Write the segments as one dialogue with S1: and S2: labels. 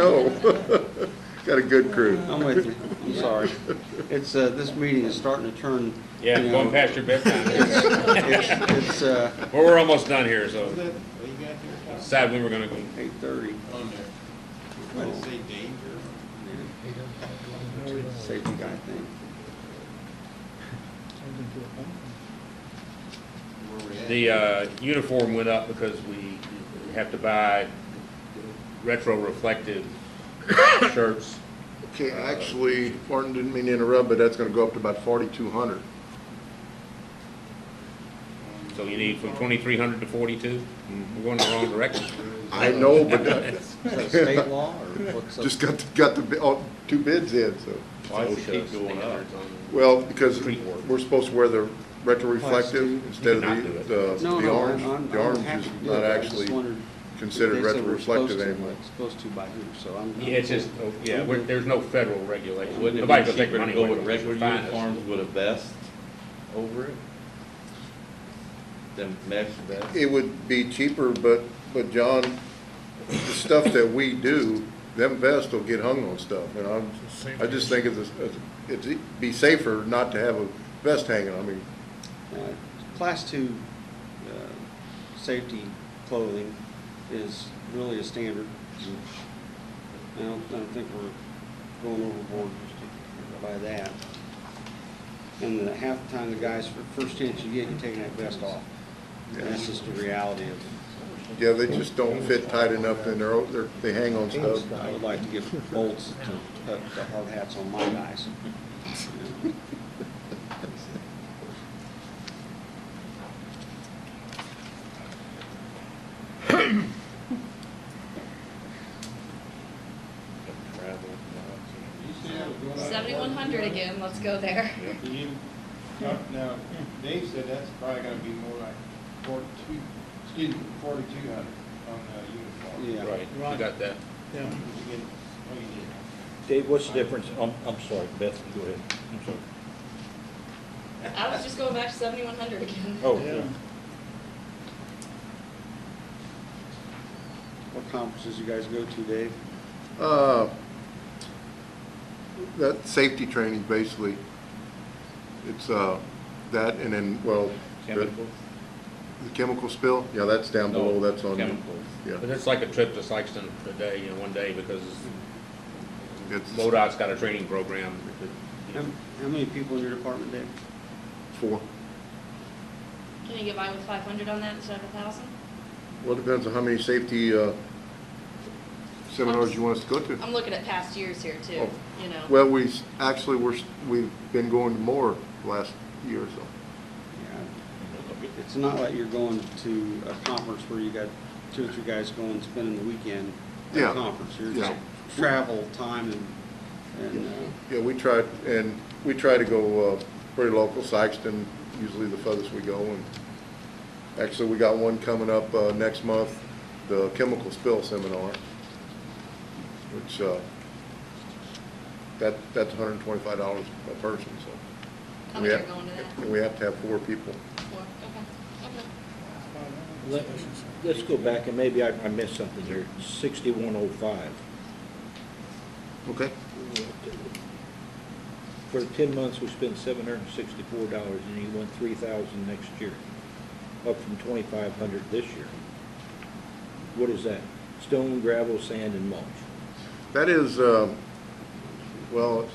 S1: No. Got a good crew.
S2: I'm with you, I'm sorry. It's, uh, this meeting is starting to turn.
S3: Yeah,
S2: you
S3: going
S2: know,
S3: past your bedtime.
S2: It's, it's, uh,
S3: Well, we're almost done here, so decide when we're gonna go.
S2: eight thirty. Oh,
S4: on there. Why does it say danger?
S2: Safety guy thing.
S4: Where we at?
S3: The, uh, uniform went up because we have to buy retro reflective shirts.
S1: Okay, actually, Martin didn't mean to interrupt, but that's gonna go up to about forty-two hundred.
S3: So you need from twenty-three hundred to forty-two? We're going the wrong direction.
S1: I know, but uh,
S2: Is that state law or what's up?
S1: just got, the- got the, bi- oh, two bids in, so.
S3: Why is it keep going up?
S1: Well, because
S3: Creek work.
S1: we're supposed to wear the retroreflective instead of
S3: Not do
S1: the,
S3: it.
S1: the,
S2: No,
S1: the
S2: no,
S1: orange.
S2: I'm- I'm
S1: The orange
S2: happy
S1: is
S2: to do
S1: not
S2: it. I just
S1: actually
S2: wondered
S1: considered
S2: if they said we're supposed
S1: retroreflective
S2: to,
S1: anymore.
S2: like, Supposed to by who, so I'm.
S3: Yeah, it's just, oh, yeah, we're- there's no federal regulation.
S5: Wouldn't it
S3: Nobody's
S5: be
S3: gonna take
S5: cheaper to
S3: money
S5: go
S3: away
S5: with
S3: from us.
S5: regular
S3: Fine.
S5: uniforms with a vest over it? Than mesh vest?
S1: It would be cheaper, but, but John, the stuff that we do, them vests will get hung on stuff, and I'm, I just think it's, a- it's, it'd be safer not to have a vest hanging, I mean,
S2: Uh, Class two, uh, safety clothing is really a standard. I don't, I don't think we're going overboard by that. And the half the time the guys, for first chance you get, you're taking that vest off. And that's just the reality of it.
S1: yeah, they just don't fit tight enough, and they're, they're, they hang on stuff.
S2: I would like to give bolts to, put the hard hats on my guys.
S6: Seventy-one hundred again, let's go there.
S4: Do you- Now, Dave said that's probably gonna be more like forty-two, excuse me, forty-two hundred on the uniform.
S2: Yeah.
S3: Right, you got that.
S4: You get- oh, you did.
S7: Dave, what's the difference, I'm, I'm sorry, Beth, go ahead, I'm sorry.
S6: I was just going back to seventy-one hundred again.
S7: Oh, yeah.
S2: What conferences you guys go to, Dave?
S1: Uh, That safety training, basically, it's, uh, that, and then, well, the
S5: Chemicals?
S1: the chemical spill, yeah, that's down below,
S5: No,
S1: that's on,
S5: Chemicals.
S1: yeah,
S3: But it's like a trip to Sykeston a day, you know, one day, because
S1: it's
S3: MoDOT's got a training program.
S2: How how many people in your department, Dave?
S1: four.
S6: Can you get by with five hundred on that instead of a thousand?
S1: Well, it depends on how many safety uh, seminars you want us to go to.
S6: I'm looking at past years here too, you know.
S1: Well, we, s- actually, we're, s- we've been going to more last year or so.
S2: Yeah. It's not like you're going to a conference where you got two or three guys going spending the weekend at
S1: Yeah.
S2: a conference. You're
S1: Yeah.
S2: just travel time and, and, uh,
S1: Yeah, we tried, and we try to go uh, pretty local, Sykeston, usually the furthest we go. And Actually, we got one coming up uh, next month, the chemical spill seminar, which, uh, that, that's $125 a person, so.
S6: How
S1: we
S6: many are
S1: have-
S6: going to that?
S1: and We have to have four people.
S6: Four. Okay, okay.
S7: Let- Let's go back, and maybe I, I missed something here, sixty-one oh five.
S1: Okay.
S7: For ten months, we spent seven hundred and sixty-four dollars, and you went three thousand next year, up from twenty-five hundred this year. What is that? Stone, gravel, sand, and mulch?
S1: That is, um, well, it's-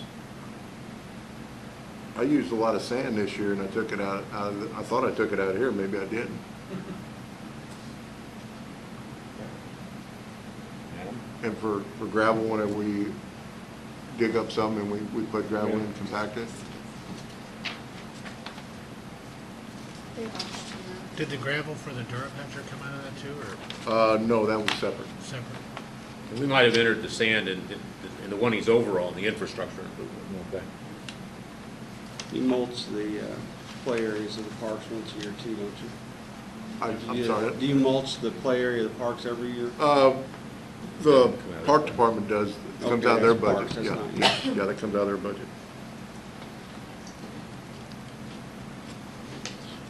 S1: I used a lot of sand this year and I took it out, out of the- I thought I took it out here, maybe I didn't. And for, for gravel, whenever we dig up some and we, we put gravel in and compact it.
S8: Did the gravel for the Durham Hunter come out of that too, or
S1: Uh, no, that was separate.
S8: separate?
S3: We might have entered the sand in, in- in the one he's overall, the infrastructure improvement.
S7: No, back.
S2: you mulch the uh, play areas of the parks once a year too, don't you?
S1: I,
S2: Do
S1: I'm
S2: you- uh,
S1: sorry.
S2: Do you mulch the play area of the parks every year?
S1: Uh, the park department does, it comes
S2: Okay,
S1: out of their
S2: that's parks,
S1: budget,
S2: that's
S1: yeah,
S2: not-
S1: yeah, yeah, that comes out of their budget.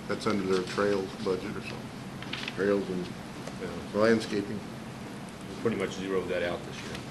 S1: That's under their trails budget or something, trails and
S3: So
S1: landscaping.
S3: we Pretty much zeroed that out this year.